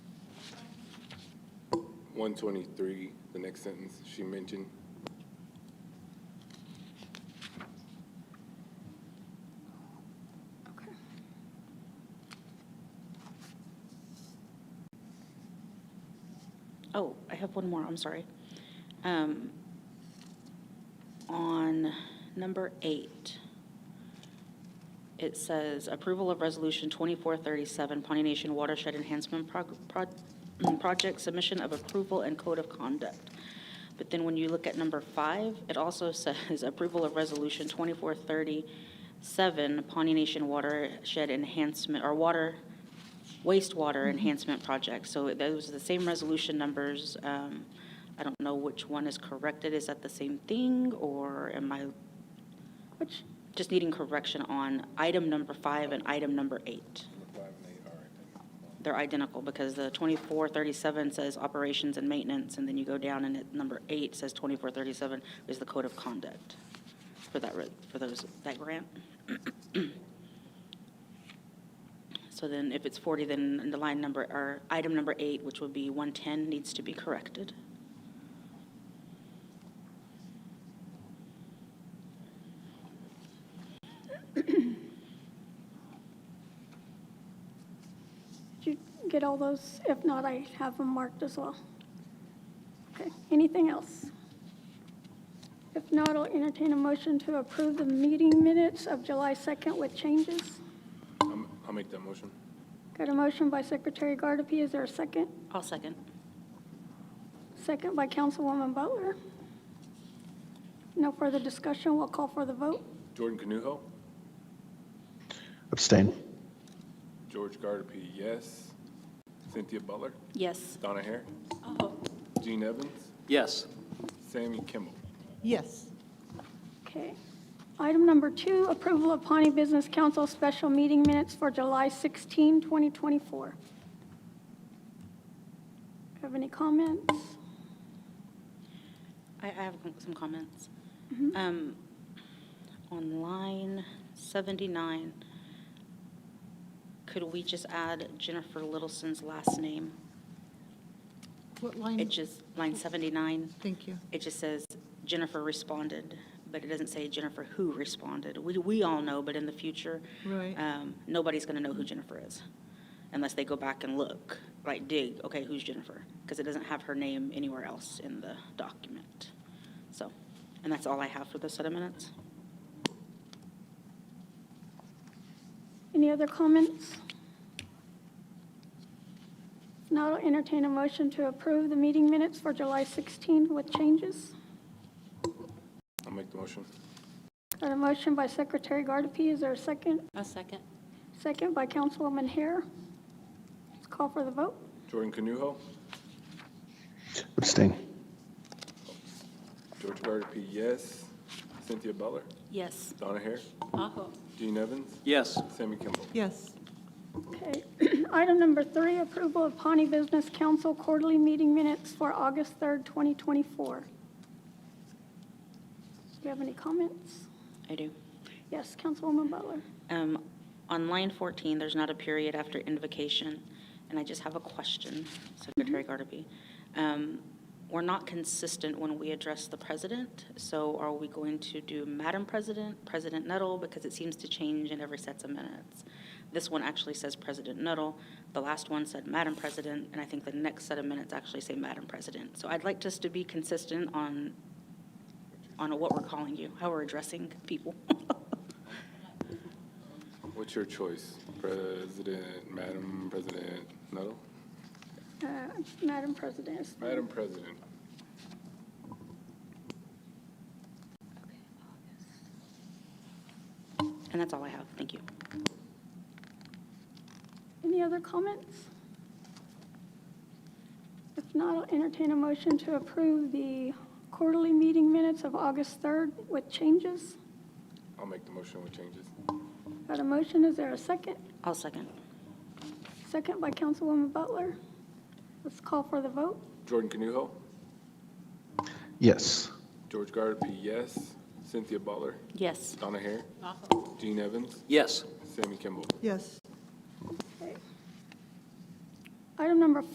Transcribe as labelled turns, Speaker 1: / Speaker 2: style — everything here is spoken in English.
Speaker 1: one twenty-three, the next sentence she mentioned.
Speaker 2: Okay. Oh, I have one more, I'm sorry. Um, On number eight, it says approval of resolution 2437, Pawnee Nation Watershed Enhancement Prog- Prod- mm, Project, submission of approval and code of conduct. But then when you look at number five, it also says approval of resolution 2437, Pawnee Nation Watershed Enhancement, or Water, wastewater enhancement project. So those are the same resolution numbers. Um, I don't know which one is corrected. Is that the same thing or am I, which, just needing correction on item number five and item number eight. They're identical because the 2437 says operations and maintenance, and then you go down and it, number eight says 2437 is the code of conduct for that, re- for those, that grant. So then if it's 40, then the line number, or item number eight, which would be 110, needs to be corrected.
Speaker 3: Did you get all those? If not, I have them marked as well. Okay, anything else? If not, I'll entertain a motion to approve the meeting minutes of July 2nd with changes.
Speaker 1: I'm- I'll make that motion.
Speaker 3: Got a motion by Secretary Gardapi. Is there a second?
Speaker 2: I'll second.
Speaker 3: Second by Councilwoman Butler. No further discussion. We'll call for the vote.
Speaker 1: Jordan Canuho,
Speaker 4: Abstain.
Speaker 1: George Gardapi, yes. Cynthia Butler,
Speaker 2: Yes.
Speaker 1: Donna Hare, Gene Evans,
Speaker 5: Yes.
Speaker 1: Sammy Kimball.
Speaker 6: Yes.
Speaker 3: Okay. Item number two, approval of Pawnee Business Council special meeting minutes for July 16, 2024. Have any comments?
Speaker 2: I, I have some comments. Um, on line 79, could we just add Jennifer Littleson's last name?
Speaker 6: What
Speaker 2: It
Speaker 6: line?
Speaker 2: just, line 79,
Speaker 6: Thank you.
Speaker 2: it just says Jennifer responded, but it doesn't say Jennifer who responded. We, we all know, but in the future,
Speaker 6: Right.
Speaker 2: um, nobody's going to know who Jennifer is unless they go back and look, like dig, okay, who's Jennifer? Because it doesn't have her name anywhere else in the document. So, and that's all I have for this set of minutes.
Speaker 3: Any other comments? Now I'll entertain a motion to approve the meeting minutes for July 16 with changes.
Speaker 1: I'll make the motion.
Speaker 3: Got a motion by Secretary Gardapi. Is there a second?
Speaker 2: A second.
Speaker 3: Second by Councilwoman Hare. Let's call for the vote.
Speaker 1: Jordan Canuho,
Speaker 4: Abstain.
Speaker 1: George Gardapi, yes. Cynthia Butler,
Speaker 2: Yes.
Speaker 1: Donna Hare,
Speaker 2: Aho.
Speaker 1: Gene Evans,
Speaker 5: Yes.
Speaker 1: Sammy Kimball.
Speaker 6: Yes.
Speaker 3: Okay. Item number three, approval of Pawnee Business Council quarterly meeting minutes for August 3rd, 2024. Do you have any comments?
Speaker 2: I do.
Speaker 3: Yes, Councilwoman Butler.
Speaker 2: Um, On line 14, there's not a period after invocation, and I just have a question, Secretary Gardapi. Um, We're not consistent when we address the president, so are we going to do Madam President, President Nettle, because it seems to change in every set of minutes? This one actually says President Nettle, the last one said Madam President, and I think the next set of minutes actually say Madam President. So I'd like us to be consistent on, on what we're calling you, how we're addressing people.
Speaker 1: What's your choice? President, Madam President Nettle?
Speaker 3: Uh, Madam President. is-
Speaker 1: Madam President.
Speaker 2: And that's all I have. Thank you.
Speaker 3: Any other comments? If not, I'll entertain a motion to approve the quarterly meeting minutes of August 3rd with changes.
Speaker 1: I'll make the motion with changes.
Speaker 3: Got a motion, is there a second?
Speaker 2: I'll second.
Speaker 3: Second by Councilwoman Butler. Let's call for the vote.
Speaker 1: Jordan Canuho,
Speaker 4: Yes.
Speaker 1: George Gardapi, yes. Cynthia Butler,
Speaker 2: Yes.
Speaker 1: Donna Hare, Gene Evans,
Speaker 5: Yes.
Speaker 1: Sammy Kimball.
Speaker 6: Yes.
Speaker 3: Item number